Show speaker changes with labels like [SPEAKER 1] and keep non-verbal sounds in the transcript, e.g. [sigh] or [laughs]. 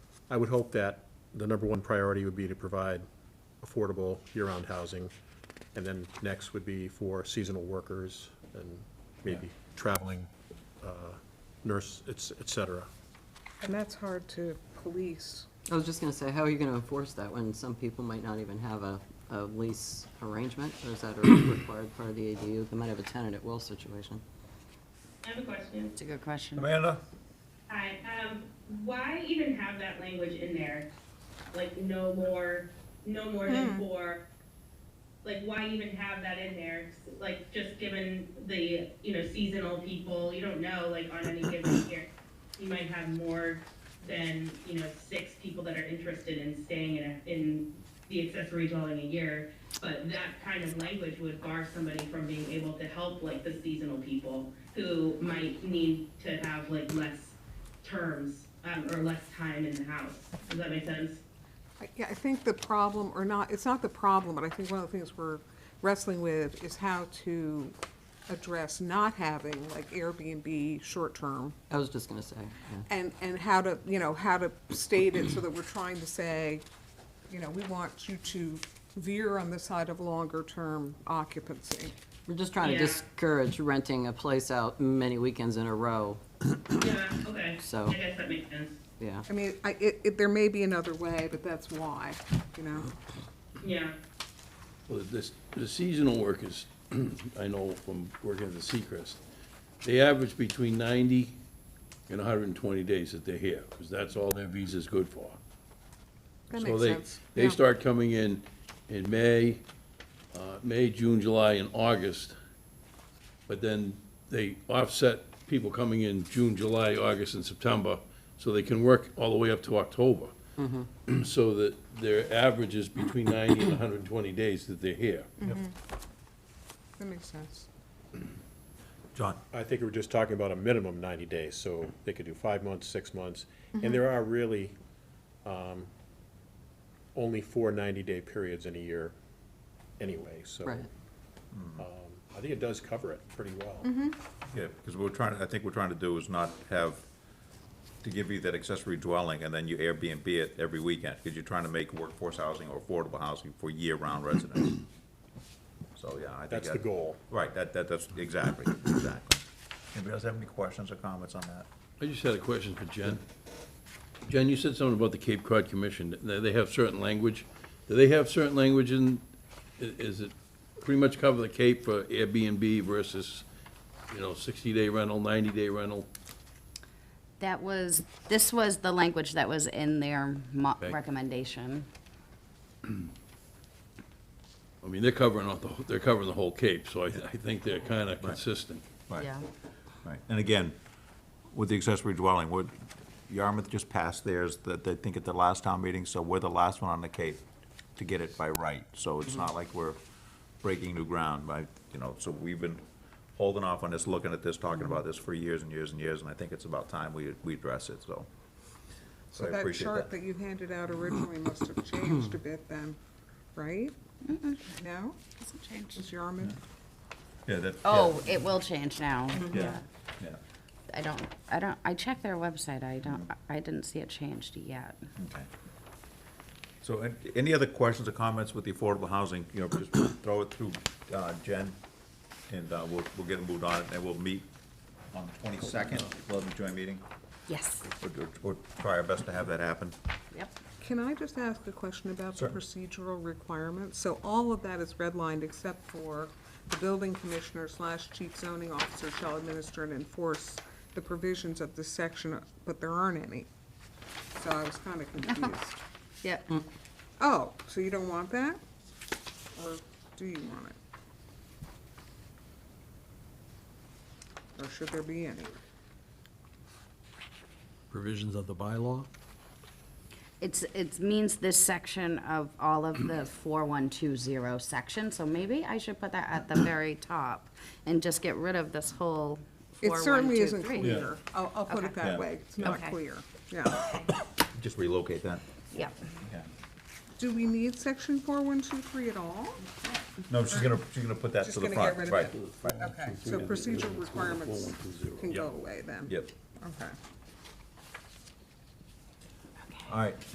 [SPEAKER 1] I would hope that the number one priority would be to provide affordable year-round housing. And then next would be for seasonal workers and maybe traveling uh, nurse, et et cetera.
[SPEAKER 2] And that's hard to police.
[SPEAKER 3] I was just gonna say, how are you gonna enforce that when some people might not even have a, a lease arrangement? Or is that a required part of the ADU? They might have a tenant at will situation.
[SPEAKER 4] I have a question.
[SPEAKER 5] It's a good question.
[SPEAKER 6] Amanda?
[SPEAKER 4] Hi, um, why even have that language in there? Like, no more, no more than four? Like, why even have that in there? Like, just given the, you know, seasonal people, you don't know, like, on any given year, you might have more than, you know, six people that are interested in staying in, a- in the accessory dwelling a year. But that kind of language would bar somebody from being able to help, like, the seasonal people who might need to have, like, less terms um, or less time in the house. Does that make sense?
[SPEAKER 2] I- Yeah, I think the problem, or not, it's not the problem, but I think one of the things we're wrestling with is how to address not having like Airbnb short-term
[SPEAKER 3] I was just gonna say, yeah.
[SPEAKER 2] and, and how to, you know, how to state it so that we're trying to say, you know, we want you to veer on the side of longer-term occupancy.
[SPEAKER 3] We're just trying to
[SPEAKER 4] Yeah.
[SPEAKER 3] discourage renting a place out many weekends in a row,
[SPEAKER 4] Yeah, okay.
[SPEAKER 3] So-
[SPEAKER 4] I guess that makes sense.
[SPEAKER 3] yeah.
[SPEAKER 2] I mean, I, it, it, there may be another way, but that's why, you know?
[SPEAKER 4] Yeah,
[SPEAKER 7] Well, this, the seasonal workers, [clears throat] I know from working at the Seacrest, they average between ninety and hundred and twenty days that they're here, because that's all their visa's good for.
[SPEAKER 2] That
[SPEAKER 7] So
[SPEAKER 2] makes
[SPEAKER 7] they,
[SPEAKER 2] sense.
[SPEAKER 7] they
[SPEAKER 2] Yeah.
[SPEAKER 7] start coming in in May, uh, May, June, July, and August. But then they offset people coming in June, July, August, and September, so they can work all the way up to October. [clears throat] So that their average is between ninety and hundred and twenty days that they're here.
[SPEAKER 2] That makes sense.
[SPEAKER 6] John?
[SPEAKER 1] I think we were just talking about a minimum 90 days, so they could do five months, six months. And there are really um, only four 90-day periods in a year anyway, so.
[SPEAKER 3] Right.
[SPEAKER 1] um, I think it does cover it pretty well.
[SPEAKER 6] Yeah, because we're trying, I think we're trying to do is not have, to give you that accessory dwelling and then you Airbnb it every weekend, because you're trying to make workforce housing or affordable housing
[SPEAKER 1] [clears throat]
[SPEAKER 6] for year-round residents. So, yeah, I think.
[SPEAKER 1] That's the
[SPEAKER 6] that-
[SPEAKER 1] goal.
[SPEAKER 6] Right, that, that, that's, exactly, exactly. Anybody else have any questions or comments on that?
[SPEAKER 7] I just had a question for Jen. Jen, you said something about the Cape Cod Commission, that they have certain language. Do they have certain language in, i- is it pretty much cover the Cape for Airbnb versus, you know, sixty-day rental, ninety-day rental?
[SPEAKER 5] That was, this was the language that was in their mo-
[SPEAKER 7] Okay.
[SPEAKER 5] recommendation.
[SPEAKER 7] I mean, they're covering, all the whole- they're covering the whole Cape, so I, I think they're kind of consistent.
[SPEAKER 6] Right.
[SPEAKER 5] Yeah.
[SPEAKER 6] Right, and again, with the accessory dwelling, what, Yarmouth just passed theirs, that they think at the last town meeting, so we're the last one on the Cape to get it by right, so it's not like we're breaking new ground by, you know, so we've been holding off on this, looking at this, talking about this for years and years and years, and I think it's about time we, we address it, so. So I
[SPEAKER 2] That
[SPEAKER 6] appreciate
[SPEAKER 2] chart
[SPEAKER 6] that.
[SPEAKER 2] that you handed out originally must have changed a bit then, right? No?
[SPEAKER 5] Hasn't changed.
[SPEAKER 2] It's Yarmouth?
[SPEAKER 6] Yeah, that. yeah,
[SPEAKER 5] Oh, it will change now.
[SPEAKER 6] Yeah, yeah,
[SPEAKER 5] I don't, I don't, I checked their website. I don't, I didn't see it changed yet.
[SPEAKER 6] okay. So, an- any other questions or comments with the affordable housing, you know, just throw it through, uh, Jen, and, uh, we'll, we'll get it moved on, and we'll meet on the twenty-second, we'll have a joint meeting,
[SPEAKER 5] Yes.
[SPEAKER 6] We'll- we'll try our best to have that happen.
[SPEAKER 5] Yep.
[SPEAKER 2] Can I just ask a question about the procedural requirements? So all of that is redlined except for the building commissioner slash chief zoning officer shall administer and enforce the provisions of this section, but there aren't any. So I was
[SPEAKER 5] [laughs]
[SPEAKER 2] kind of confused.
[SPEAKER 5] Yep.
[SPEAKER 2] Oh, so you don't want that? Or do you want it? Or should there be any?
[SPEAKER 8] provisions of the bylaw.
[SPEAKER 5] It's, it means this section of all of the 4120 section, so maybe I should put that at the very top and just get rid of this whole
[SPEAKER 2] It certainly isn't
[SPEAKER 5] 4123.
[SPEAKER 2] clear. I'll, I'll put it
[SPEAKER 5] Okay.
[SPEAKER 2] that
[SPEAKER 6] Yeah.
[SPEAKER 2] way. It's not
[SPEAKER 5] Okay.
[SPEAKER 2] clear. Yeah.
[SPEAKER 6] Just relocate that.
[SPEAKER 5] Yep.
[SPEAKER 2] Do we need section four, one, two, three at all?
[SPEAKER 6] No, she's gonna, she's gonna put that
[SPEAKER 2] Just
[SPEAKER 6] to the
[SPEAKER 2] gonna get
[SPEAKER 6] front,
[SPEAKER 2] rid of
[SPEAKER 6] right, right,
[SPEAKER 2] Okay, so procedural requirements can go away then?
[SPEAKER 6] yep.
[SPEAKER 2] Okay.
[SPEAKER 6] All right.